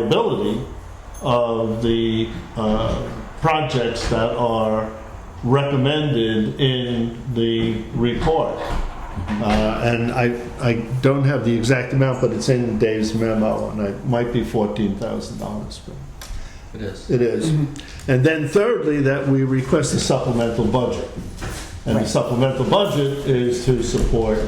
viability of the uh, projects that are recommended in the report. Uh, And I, I don't have the exact amount, but it's in Dave's memo, and it might be $14,000. but It is. It is. And then thirdly, that we request a supplemental budget. And the supplemental budget is to support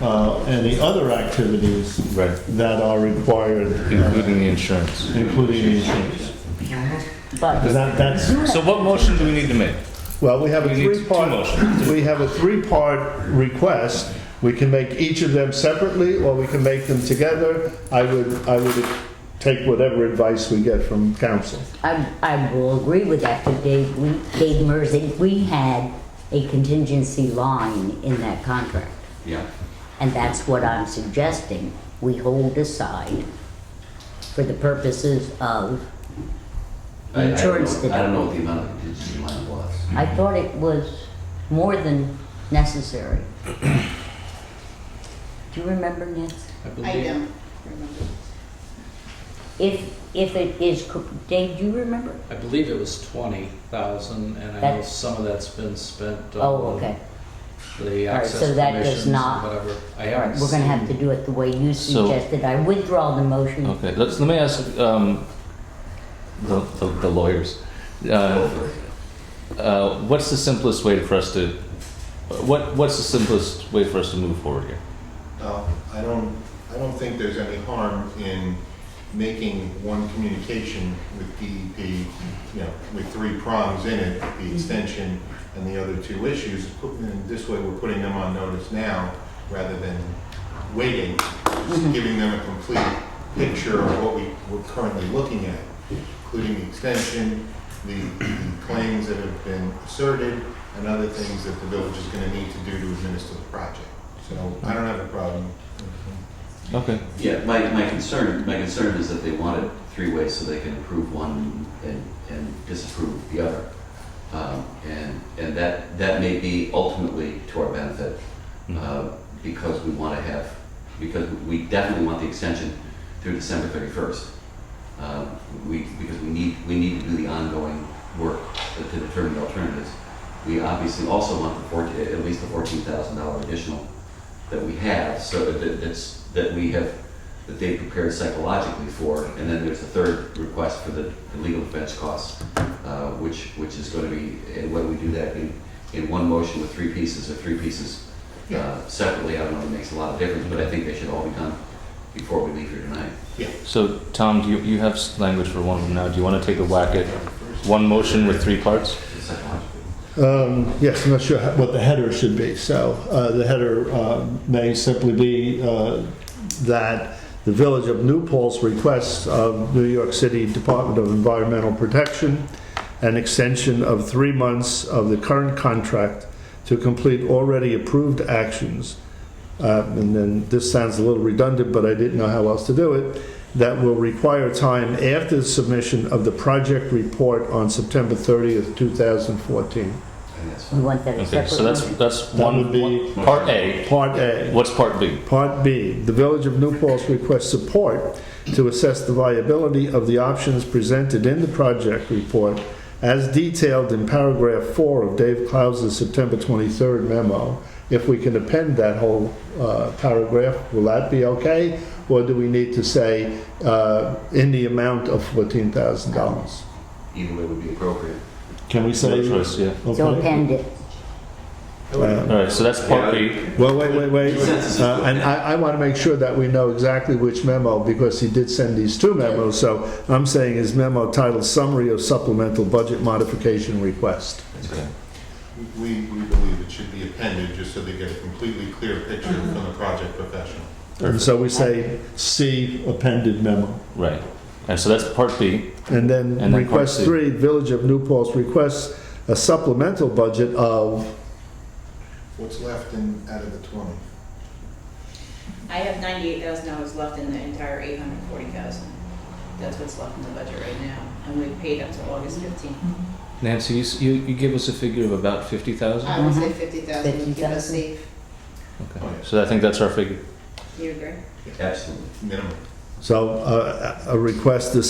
uh, any other activities Right. that are required, Including the insurance. including the insurance. But Because that, that's, So what motion do we need to make? well, we have a We need two three-part, motions. we have a three-part request. We can make each of them separately, or we can make them together. I would, I would take whatever advice we get from council. I, I will agree with that, but Dave, we, Dave Merzig, we had a contingency line in that contract. Yeah. And that's what I'm suggesting, we hold aside for the purposes of, I- I don't Insurance know- did I that. don't know what the amount of contingency line was. I thought it was more than necessary. Do you remember, Nancy? I don't remember. If, if it is, co- Dave, do you remember? I believe it was twenty thousand, and I know That's- some of that's been spent Uh, Oh, on okay. the All right, access so that does permissions and not- whatever. I All right, haven't we're gonna have to seen- do it the way you So- suggested. I withdraw the motion. Okay, let's, let me ask, um, the, the the lawyers. Uh, uh, what's the simplest way for us to, what, what's the simplest way for us to move forward here? Uh, I don't, I don't think there's any harm in making one communication with DEP, you know, with three prongs in it, the extension and the other two issues. And this way, we're putting them on notice now, rather than waiting, just giving them a complete picture of what we, we're currently looking at, including the extension, the the claims that have been asserted, and other things that the village is gonna need to do to administer the project. So I don't have a problem. Okay, Yeah, my, my concern, my concern is that they want it three ways so they can approve one and, and disapprove the other. Um, and, and that, that may be ultimately to our benefit, uh, because we want to have, because we definitely want the extension through December thirty-first. Um we, because we need, we need to do the ongoing work to determine the alternatives. We obviously also want the fourteen, at least the fourteen thousand dollar additional that we have, so that that's, that we have, that they prepared psychologically for. And then there's the third request for the the legal defense costs, uh, which, which is going to be, and when we do that in, in one motion with three pieces or three pieces uh, Yeah. separately, I don't know if it makes a lot of difference, but I think they should all be done before we leave here tonight. so Tom, do you, you have s- language for one of them now. Do you want to take a whack at one motion with three parts? Psychologically. Um, Yes, I'm not sure how- what the header should be. So uh, the header uh, may simply be uh, that the Village of New Paul's request of New York City Department of Environmental Protection an extension of three months of the current contract to complete already approved actions. Uh, And then, this sounds a little redundant, but I didn't know how else to do it, that will require time after the submission of the project report on September 30th, 2014. I think that's You fine. want that as Okay, separate? so that's, motion? that's That one, would be- one- part A. Part A. What's part B? Part B, the Village of New Paltz requests support to assess the viability of the options presented in the project report as detailed in paragraph four of Dave Klaus's September 23rd memo. If we can append that whole uh, paragraph, will that be okay? Or do we need to say uh, in the amount of $14,000? Either way would be appropriate. Can we No choice, yeah. So append it. Uh, All right, so that's part B. Well, wait, wait, wait. Consensus is Uh, And good. I, I want to make sure that we know exactly which memo, because he did send these two memos. So I'm saying his memo titled Summary of Supplemental Budget Modification Request. Okay. We, we believe it should be appended, just so they get a completely clear picture from the project professional. And so we say, see appended memo. Right. And so that's part B. And then And then request part C. three, Village of New Paltz requests a supplemental budget of, What's left in, out of the twenty? I have ninety-eight thousand dollars left in the entire eight hundred forty thousand. That's what's left in the budget right now, and we've paid up to August fifteenth. Nancy, you, s- you, you give us a figure of about fifty thousand? I would say fifty thousand, Fifty keep us thousand. safe. Okay. So I think that's our figure. You agree? Absolutely. Minimum. So uh, a a request to